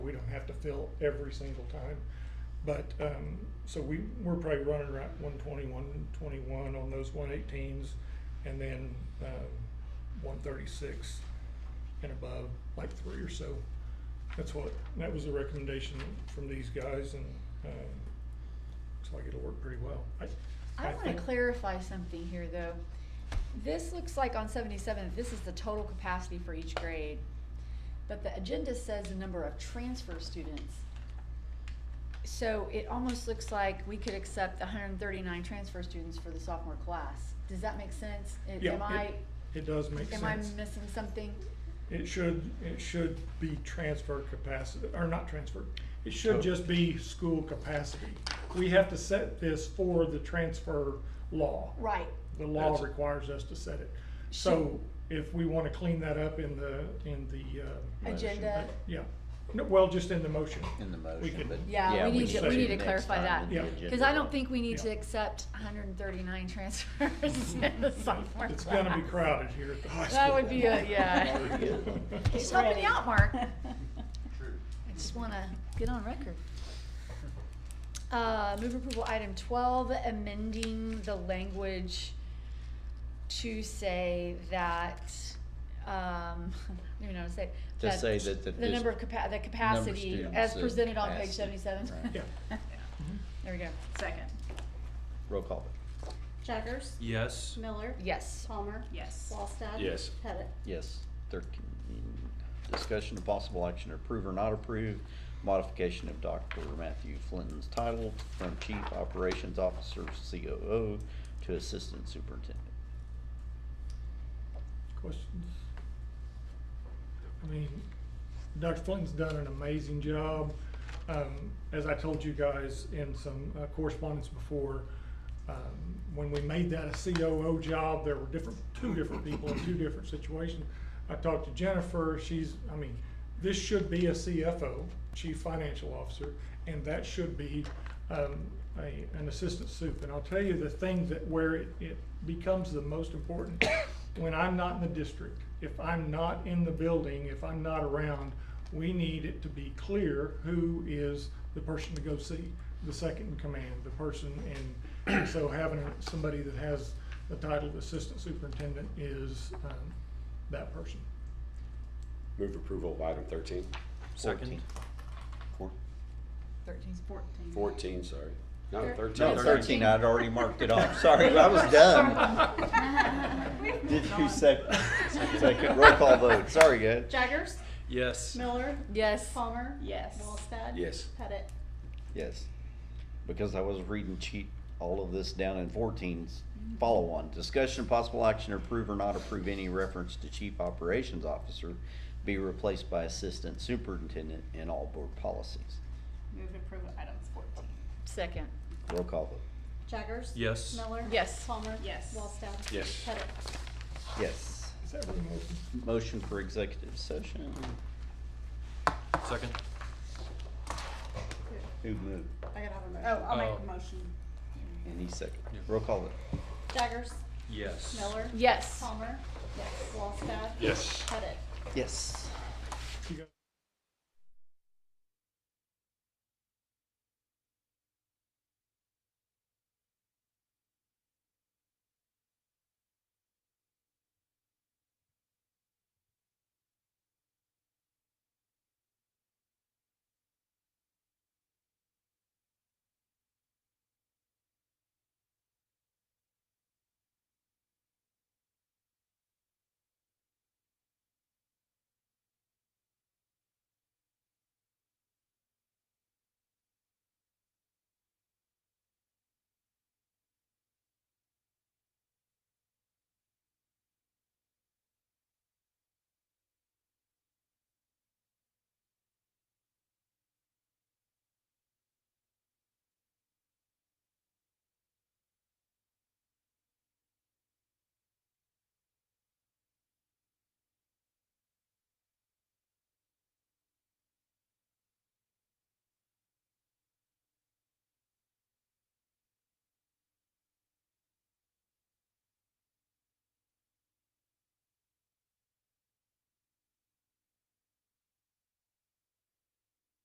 don't have to fill every single time. But, um, so we, we're probably running around one twenty, one twenty-one on those one eighteens, and then, uh, one thirty-six and above, like three or so. That's what, that was the recommendation from these guys, and, um, looks like it'll work pretty well. I wanna think- clarify something here, though. This looks like on seventy-seven, this is the total capacity for each grade. But the agenda says the number of transfer students. So it almost looks like we could accept hundred and thirty-nine transfer students for the sophomore class. Does that make sense? I- Yeah, Am it I, It does make sense. am I missing something? It should, it should be transfer capacity, or not transfer, it should just be school capacity. We have to set this for the transfer law. Right, The law That's- requires us to set it. So if we wanna clean that up in the, in the, uh, agenda. yeah, No, well, just in the motion. in the motion, could- but. Yeah, need we to- should we need to next clarify time that. in the Yeah. agenda. Cause I don't think we need to Yeah. accept hundred and thirty-nine transfers in the sophomore class. It's gonna be crowded here at the high school. That would be a, yeah. That would be good. Just helping you out, Mark. I True. just wanna get on record. Uh, move approval item twelve, amending the language to say that, um, I don't even know how to say. it, To say that the The number of dis- capa- the of capacity students as that presented on page passed it. seventy-seven. Right. Yeah. Mm-hmm. There we go. Second. Roll call. Jaggers. Yes. Miller. Yes. Palmer. Yes. Wallstad. Yes. Pettit. Yes. Thirteen, discussion of possible action to approve or not approve modification of Dr. Matthew Flinton's title from Chief Operations Officer COO to Assistant Superintendent. Questions? I mean, Dr. Flinton's done an amazing job. Um, as I told you guys in some uh, correspondence before, um, when we made that a COO job, there were different, two different people in two different situations. I talked to Jennifer, she's, I mean, this should be a CFO, Chief Financial Officer, and that should be, um, a, an assistant soup. And I'll tell you the thing that, where it, it becomes the most important, when I'm not in the district, if I'm not in the building, if I'm not around, we need it to be clear who is the person to go see, the second in command, the person, and so having somebody that has the title of assistant superintendent is, um, that person. Move approval of item thirteen. Second. Fourteen. Thirteen's Fourteen, sorry. No, Thir- thirteen. No, Thirteen. thirteen, I'd already marked it off. Sorry, I was done. Did you sec- second, roll call vote. Sorry, guys. Jaggers. Yes. Miller. Yes. Palmer. Yes. Wallstad. Yes. Pettit. Yes, because I was reading cheat, all of this down in 14's follow-on. Discussion, possible action, approve or not approve any reference to chief operations officer be replaced by assistant superintendent in all board policies. Move to approve items fourteen. Second. Roll call vote. Jaggers. Yes. Miller. Yes. Palmer. Yes. Wallstad. Yes. Pettit. Yes. Is that really motion? Motion for executive session. Second. Who moved? I gotta have a motion. Oh, I'll make a Oh. motion. Any second. Roll call vote. Jaggers. Yes. Miller. Yes. Palmer. Yes. Wallstad. Yes. Pettit. Yes. You got-